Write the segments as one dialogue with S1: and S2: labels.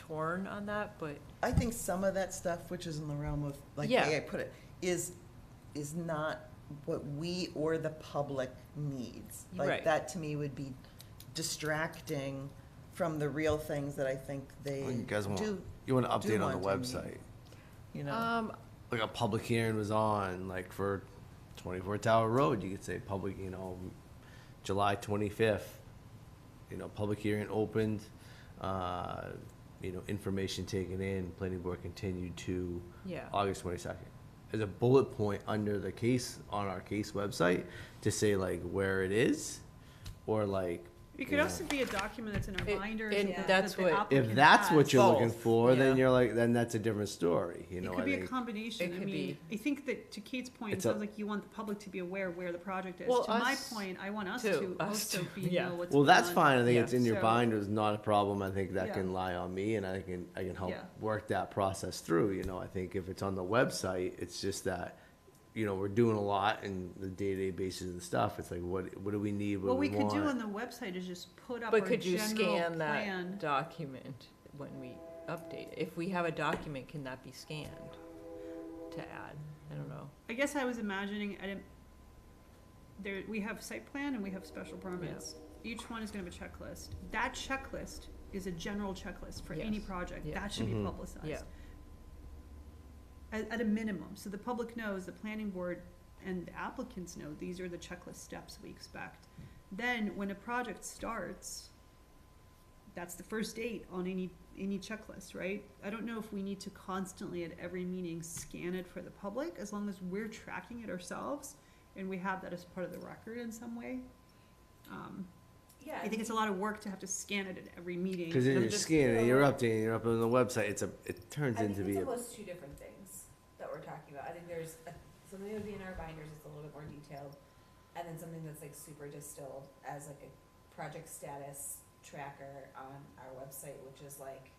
S1: torn on that, but
S2: I think some of that stuff, which is in the realm of, like, the
S1: Yeah.
S2: way I put it, is, is not what we or the public needs. Like,
S1: Right.
S2: that to me would be distracting from the real things that I think they
S3: What do you guys want?
S2: Eh, do,
S3: You want an
S2: do
S3: update on the
S2: want to meet.
S3: website?
S2: you know?
S1: um,
S3: Like a public hearing was on, like for twenty-four Tower Road, you could say public, you know, July twenty-fifth. You know, public hearing opened, uh, you know, information taken in, planning board continued to
S1: Yeah.
S3: August twenty-second. As a bullet point under the case, on our case website, to say like where it is, or like. you
S4: It could
S3: know,
S4: also be a document that's in our
S1: It-
S4: binders.
S1: and
S4: that
S1: that's
S4: the
S1: what- If
S3: If
S4: applicant
S3: that's what
S4: has.
S3: you're
S2: Both,
S3: looking for, then
S1: yeah.
S3: you're like, then that's a different story, you know, I
S4: It could be a
S3: think.
S4: combination.
S1: It
S4: I
S1: could
S4: mean, I think that to Kate's point, it
S3: It's a-
S4: sounds like you want the public to be aware where the project is.
S1: Well,
S4: To my
S1: us
S4: point, I want us
S1: too.
S4: to
S1: Us
S4: also
S1: too,
S4: be
S1: yeah.
S4: know what's.
S3: Well, that's
S4: going on.
S3: fine. I think it's in your
S4: So-
S3: binder. It's not a problem. I think that
S4: Yeah.
S3: can lie on me and I can, I can help
S4: Yeah.
S3: work that process through, you know, I think if it's on the website, it's just that, you know, we're doing a lot and the day-to-day basis of the stuff, it's like, what, what do we need? What
S4: What
S3: do
S4: we
S3: we
S4: could do
S3: want?
S4: on the website is just put up our
S1: but could you
S4: general
S1: scan that
S4: plan.
S1: document when we update? it? If we have a document, can that be scanned to add? I don't know.
S4: I guess I was imagining, I didn't, there, we have site plan and we have special permits. Each one is gonna have a checklist. That checklist is a general checklist for any
S1: Yes.
S4: project.
S1: Yeah.
S4: That should be
S3: Mhm.
S4: publicized.
S1: Yeah.
S4: At, at a minimum, so the public knows, the planning board and the applicants know, these are the checklist steps we expect. Then, when a project starts, that's the first date on any, any checklist, right? I don't know if we need to constantly at every meeting scan it for the public, as long as we're tracking it ourselves and we have that as part of the record in some way. Um,
S1: Yeah.
S4: I think it's a lot of work to have to scan it at every meeting.
S3: Cause then
S1: I'm
S3: you're
S1: just-
S3: scanning, and you're updating, you're up on the website. It's a, it turns
S5: I think
S3: into
S5: it's
S3: be a
S5: almost two different things that we're talking about. I think there's a, something that would be in our binders that's a little bit more detailed, and then something that's like super distilled as like a project status tracker on our website, which is like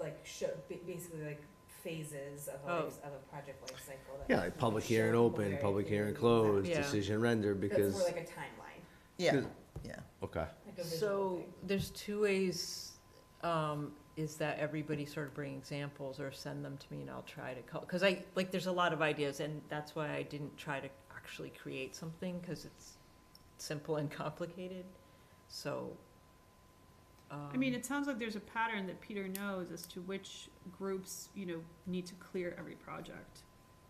S5: like show ba- basically like phases of a
S1: Oh.
S5: life, of a project life cycle. That
S3: Yeah,
S5: we
S3: like
S5: can
S3: public
S5: show
S3: hearing
S5: people
S3: open,
S5: very
S3: public hearing
S5: clearly.
S3: closed,
S1: Yeah.
S3: decision render,
S5: That's
S3: because,
S5: more like a timeline,
S2: Yeah,
S3: Good.
S2: yeah.
S3: okay.
S5: like a visual
S1: So
S5: thing.
S1: there's two ways, um, is that everybody sort of bring examples or send them to me and I'll try to call, cause I, like, there's a lot of ideas and that's why I didn't try to actually create something, cause it's simple and complicated, so.
S4: I mean,
S1: um,
S4: it sounds like there's a pattern that Peter knows as to which groups, you know, need to clear every project.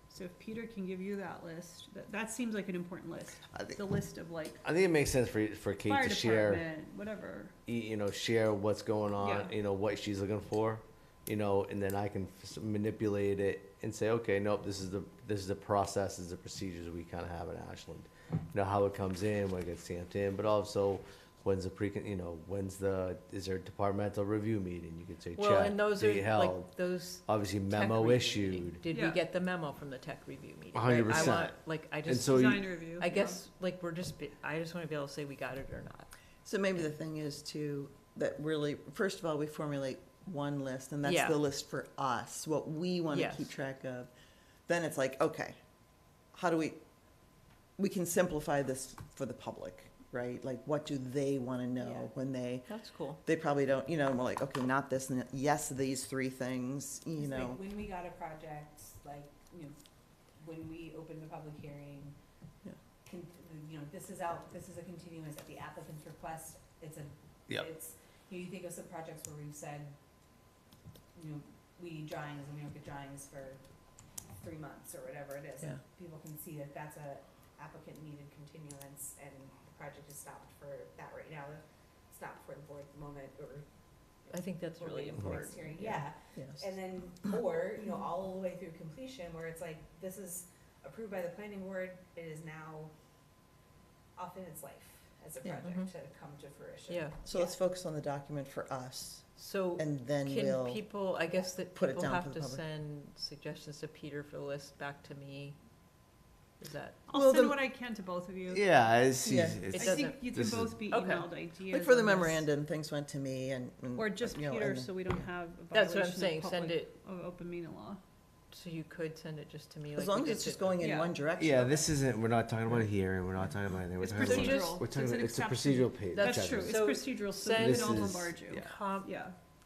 S4: So if Peter can give you that list, that, that seems like an important list,
S3: I think,
S4: the list of like
S3: I think it makes sense for, for Kate
S4: fire
S3: to share.
S4: department, whatever.
S3: y- you know share what's going on
S4: Yeah.
S3: you know what she's looking for you know and then i can f- manipulate it and say okay nope this is the this is the process this is the procedures we kind of have in ashland you know how it comes in when it gets stamped in but also when's the pre you know when's the is there a departmental review meeting you could say
S1: Well,
S3: check
S1: and those
S3: date
S1: are,
S3: held
S1: like, those
S3: obviously
S1: tech
S3: memo
S1: review
S3: issued
S1: meeting. Did we
S4: Yeah.
S1: get the memo from the tech review meeting?
S3: A hundred
S1: Like, I
S3: percent.
S1: want- Like, I
S3: and
S1: just,
S3: so
S4: Design
S3: you,
S4: review.
S1: I
S4: yeah.
S1: guess, like, we're just, be- I just wanna be able to say we got it or not.
S2: So maybe the thing is to, that really, first of all, we formulate one list, and that's
S1: Yeah.
S2: the list for us, what we want to
S1: Yes.
S2: keep track of. Then it's like, okay, how do we, we can simplify this for the public, right? Like, what do they want to
S5: Yeah.
S2: know when they,
S1: That's cool.
S2: they probably don't, you know, and we're like, okay, not this, and yes, these three things, you
S5: It's like
S2: know.
S5: When we got a project, like, you know, when we opened the public hearing,
S2: Yeah.
S5: con- you know, this is out, this is a continuance at the applicant's request, it's a,
S3: Yep.
S5: it's, you know, you think of some projects where we've said, you know, we need drawings, and we don't get drawings for three months, or whatever it is.
S2: Yeah.
S5: People can see that that's a applicant needed continuance, and the project is stopped for that right now, it's not before the board moment, or.
S1: I think that's
S5: we're
S1: really
S5: waiting for next
S1: important,
S5: hearing.
S1: yeah.
S5: Yeah,
S2: Yes.
S5: and then, or, you know, all the way through completion, where it's like, this is approved by the planning board, it is now off in its life as a
S2: Yeah. mm-hmm.
S5: project to come to fruition.
S1: yeah.
S2: So let's focus on the document for us,
S1: So
S2: and then
S1: can
S2: we'll,
S1: people, I guess that
S2: put it
S1: people
S2: down
S1: have
S2: for the
S1: to
S2: public.
S1: send suggestions to Peter for the list back to me? Is that,
S4: I'll
S2: Well,
S4: send
S2: the-
S4: what I can to both of you.
S3: yeah it's,
S2: Yeah.
S3: easy.
S4: I
S1: It
S3: it's
S1: does-
S4: think
S1: doesn't-
S4: you can
S3: this is-
S4: both be
S1: Okay.
S4: emailed ideas.
S2: like for the
S4: on this.
S2: memorandum, things went to me and. and,
S4: Or just
S2: you know,
S4: Peter,
S2: and-
S4: so we don't have a
S1: that's what I'm
S4: violation
S1: saying,
S4: of
S1: send
S4: public,
S1: it,
S4: of open meeting law.
S1: so you could send it just to me.
S2: As
S1: like we
S2: long as
S1: did
S2: it's
S1: to-
S2: just going in
S4: Yeah.
S2: one direction.
S3: yeah, this isn't. We're not talking about a hearing. We're not talking about anything. We're
S4: It's
S3: talking about.
S1: just-
S4: procedural.
S3: We're
S4: so
S3: talking. It's
S4: an
S3: a
S4: exception.
S3: procedural page.
S1: That's
S4: That's true,
S3: Judge.
S4: it's
S1: So
S4: procedural, so
S1: send-
S4: we
S3: This
S4: don't
S3: is-
S4: bombard you.
S3: yeah.
S1: Com-
S4: Yeah,